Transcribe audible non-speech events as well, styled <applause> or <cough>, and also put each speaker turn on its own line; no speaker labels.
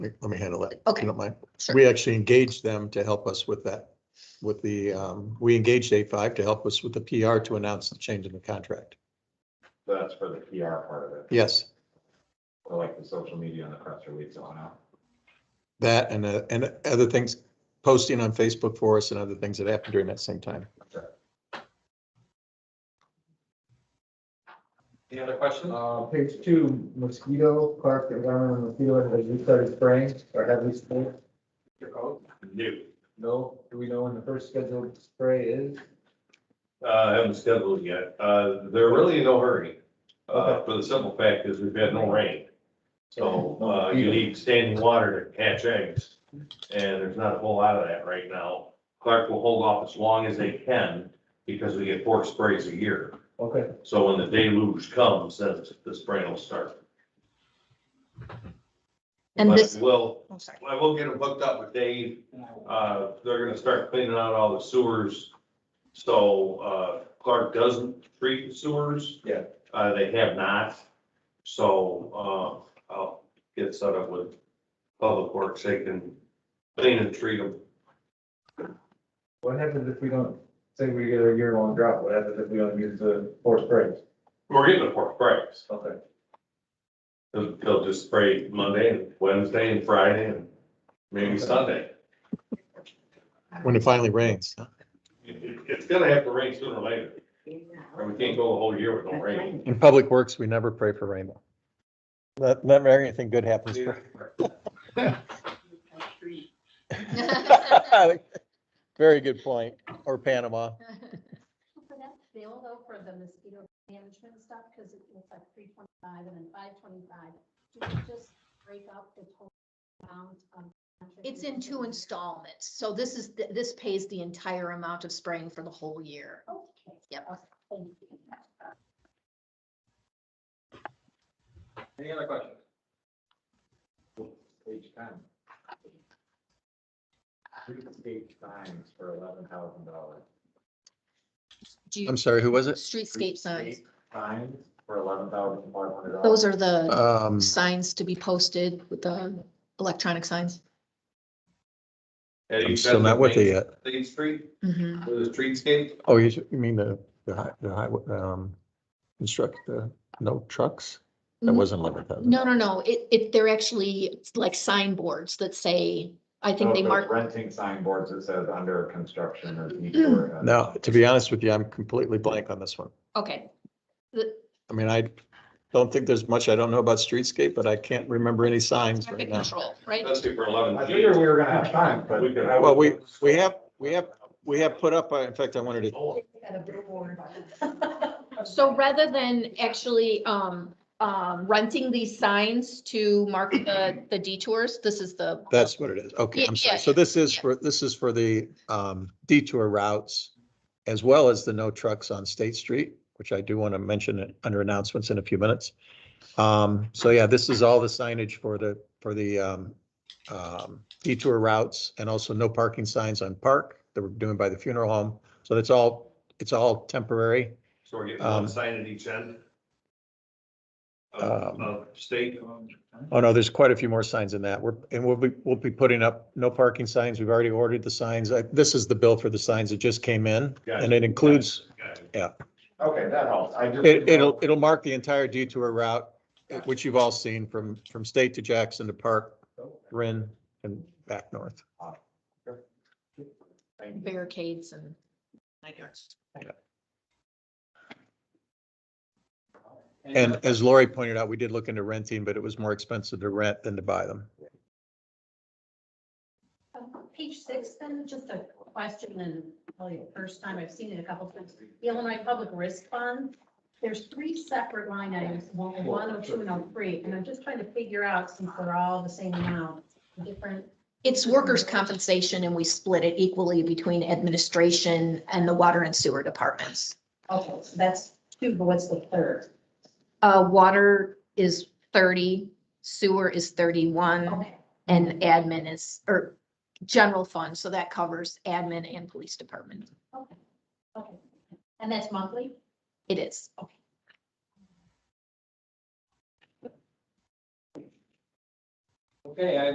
Let let me handle that. if
Okay.
You don't mind.
Sure.
We actually engaged them to help us with that, with the, um, we engaged A five to help us with the PR to announce the change in the contract.
So that's for the PR part of it,
Yes,
or like the social media and the press release going out.
that and, uh, and other things, posting on Facebook for us and other things that happened during that same time.
Any other questions?
Uh, page two, mosquito, Clark, the environmental mosquito, has we started spraying or have we sprayed?
New.
No, do we know when the first scheduled spray is?
Uh, haven't scheduled yet. Uh, they're really in no hurry. Uh, for the simple fact is we've had no rain. So, uh, you need standing water to hatch eggs. And there's not a whole lot of that right now. Clark will hold off as long as they can because we get four sprays a year.
Okay,
So when the deluge comes, then the spraying will start.
And
But
this,
We'll,
oh, sorry.
I will get them hooked up with Dave Uh, they're gonna start cleaning out all the sewers. So, uh, Clark doesn't treat the sewers.
Yeah.
Uh, they have not. So, uh, I'll get set up with Public Works. They can clean and treat them.
what happens if we don't, say we get a year-long drought, what happens if we don't use the four sprays?
We're getting the four sprays.
Okay.
They'll, they'll just spray Monday and Wednesday and Friday and maybe Sunday.
When it finally rains.
It- it- it's gonna have to rain sooner or later. And we can't go a whole year with no rain.
In Public Works, we never pray for rain. Not, not very anything good happens.
<laughs>
Very good point. Or Panama.
For that bill though, for the mosquito management stuff, because it was like three twenty-five and then five twenty-five, do we just break up the total amount of?
It's in two installments, so this is, th- this pays the entire amount of spraying for the whole year.
Okay.
Yep.
Okay, Thank you.
Any other questions?
Page ten.
Three state signs for eleven thousand dollars.
Do you,
I'm sorry, who was it?
streetscape signs,
Signs for eleven thousand five hundred dollars.
those are the
Um,
signs to be posted with the electronic signs.
I'm still not with uh, you yet.
Main Street,
Mhm.
with the streetscape.
Oh, you should- you mean the, the hi- the highway, um, instruct the, no trucks? That
Mm,
wasn't eleven thousand.
No, no, no, it, it, they're actually like signboards that say, I think they mark,
Oh, Renting signboards that says under construction or. need for, uh,
Now, to be honest with you, I'm completely blank on this one.
okay. The
I mean, I don't think there's much I don't know about streetscape, but I can't remember any signs right Uh,
traffic
now.
control, right?
That's super eleven.
I figured we were gonna have time, but.
We could-
I
Well, we,
would-
we have, we have, we have put up, uh, in fact, I wanted to,
Oh,
So rather than actually um, um, renting these signs to mark the, the detours, this is the.
that's what it is. Okay,
Yeah,
I'm
yeah,
sorry. So this is
yeah.
for, this is for the, um, detour routes as well as the no trucks on State Street, which I do want to mention it under announcements in a few minutes. Um, so yeah, this is all the signage for the, for the, um, um, detour routes and also no parking signs on Park that we're doing by the funeral home. So that's all, it's all temporary.
So we're getting
Um,
one sign at each end? Of,
Um,
of state,
Oh, no, there's quite a few more signs in that. We're, and we'll be, we'll be putting up no parking signs. We've already ordered the signs. I- This is the bill for the signs that just came in.
Gotcha.
And it includes,
Got it.
Okay, that helps. I just.
it, it'll, it'll mark the entire detour route, which you've all seen from, from State to Jackson to Park, Rin and back north.
Thank you.
Barricades and.
And as Lori pointed out, we did look into renting, but it was more expensive to rent than to buy them.
Um, <laughs> Page six, then, just a question, and probably the first time I've seen it a couple times. The Illinois Public Risk Fund, there's three separate line items, one, one oh two and oh three, and I'm just trying to figure out, since they're all the same amount, different.
It's workers' compensation and we split it equally between administration and the water and sewer departments.
Okay, so that's two, but what's the third?
Uh, water is thirty, sewer is thirty-one,
Okay,
and admin is, or general fund, so that covers admin and police department.
okay, okay. And that's monthly?
It is.
Okay, I